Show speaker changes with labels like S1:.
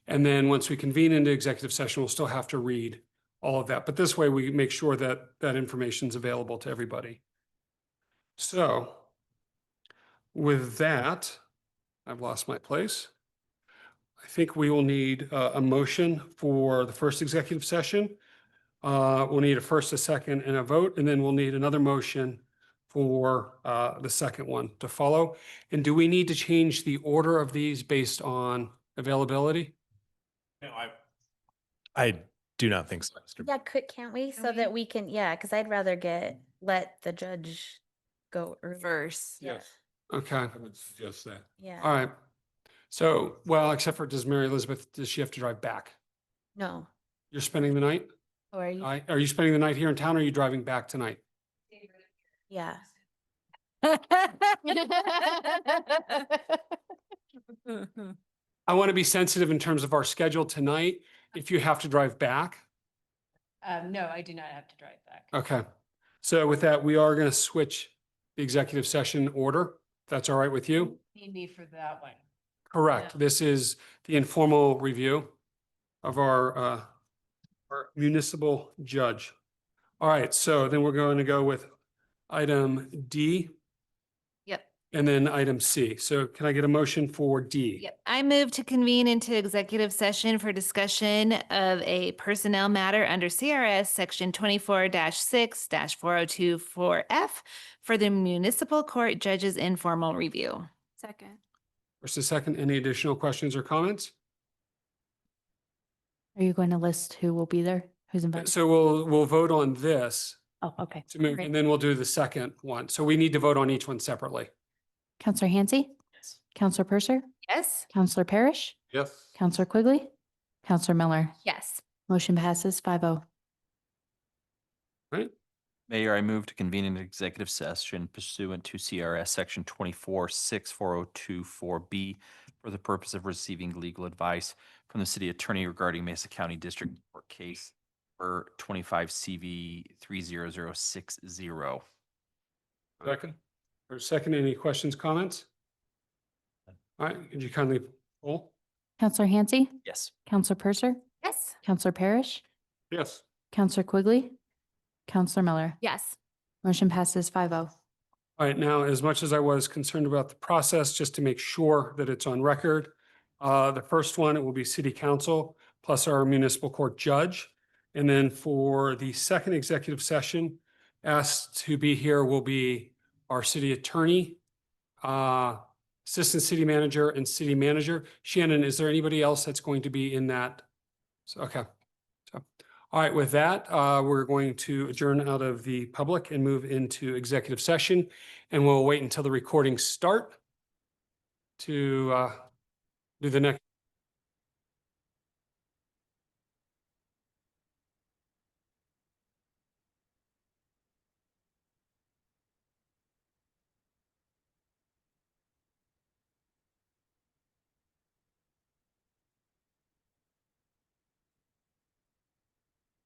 S1: And then once we convene into executive session, we'll still have to read all of that. But this way we make sure that that information's available to everybody. So with that, I've lost my place. I think we will need uh, a motion for the first executive session. Uh, We'll need a first, a second, and a vote, and then we'll need another motion for uh, the second one to follow. And do we need to change the order of these based on availability?
S2: No, I,
S3: I do not think so. Mr.
S4: Yeah, could, can't we?
S5: Can
S4: So that
S5: we-
S4: we can, yeah, because I'd rather get, let the judge go early.
S5: verse.
S2: yes,
S1: Okay,
S2: I would suggest that.
S4: Yeah,
S1: all right. So, well, except for does Mary Elizabeth, does she have to drive back?
S4: no.
S1: You're spending the night?
S4: Or you,
S1: I- Are you spending the night here in town or are you driving back tonight?
S4: yeah.
S1: I want to be sensitive in terms of our schedule tonight. If you have to drive back,
S6: Um, no, I do not have to drive back.
S1: Okay. So with that, we are going to switch the executive session order. if That's all right with you?
S6: Need me for that one.
S1: Correct. This is the informal review of our uh, our municipal judge. All right, so then we're going to go with item D.
S5: Yep.
S1: And then item C. So can I get a motion for D?
S5: Yep. I move to convene into executive session for discussion of a personnel matter under CRS Section twenty-four six four oh two four F for the municipal court judge's informal review.
S7: Second.
S1: First and second, any additional questions or comments?
S7: Are you going to list who will be there? Who's invited?
S1: So we'll, we'll vote on this
S7: Oh, okay.
S1: to move,
S7: Great.
S1: and then we'll do the second one. So we need to vote on each one separately.
S7: Counselor Hansi? Counselor Purser?
S5: Yes?
S7: Counselor Parrish?
S2: Yes.
S7: Counselor Quigley? Counselor Miller?
S5: Yes.
S7: Motion passes five oh.
S8: Mayor, I move to convene an executive session pursuant to CRS Section twenty-four six four oh two four B for the purpose of receiving legal advice from the city attorney regarding Mesa County District Court Case for twenty-five CV three zero zero six zero.
S1: Second. Or second, any questions, comments? All right, could you kindly poll?
S7: Counselor Hansi?
S8: Yes.
S7: Counselor Purser?
S5: Yes.
S7: Counselor Parrish?
S1: Yes.
S7: Counselor Quigley? Counselor Miller?
S5: Yes.
S7: Motion passes five oh.
S1: All right, now, as much as I was concerned about the process, just to make sure that it's on record, uh, the first one, it will be city council plus our municipal court judge. And then for the second executive session, asked to be here will be our city attorney, uh, assistant city manager and city manager. Shannon, is there anybody else that's going to be in that? So, okay. So, all right, with that, uh, we're going to adjourn out of the public and move into executive session. And we'll wait until the recordings start to uh, do the next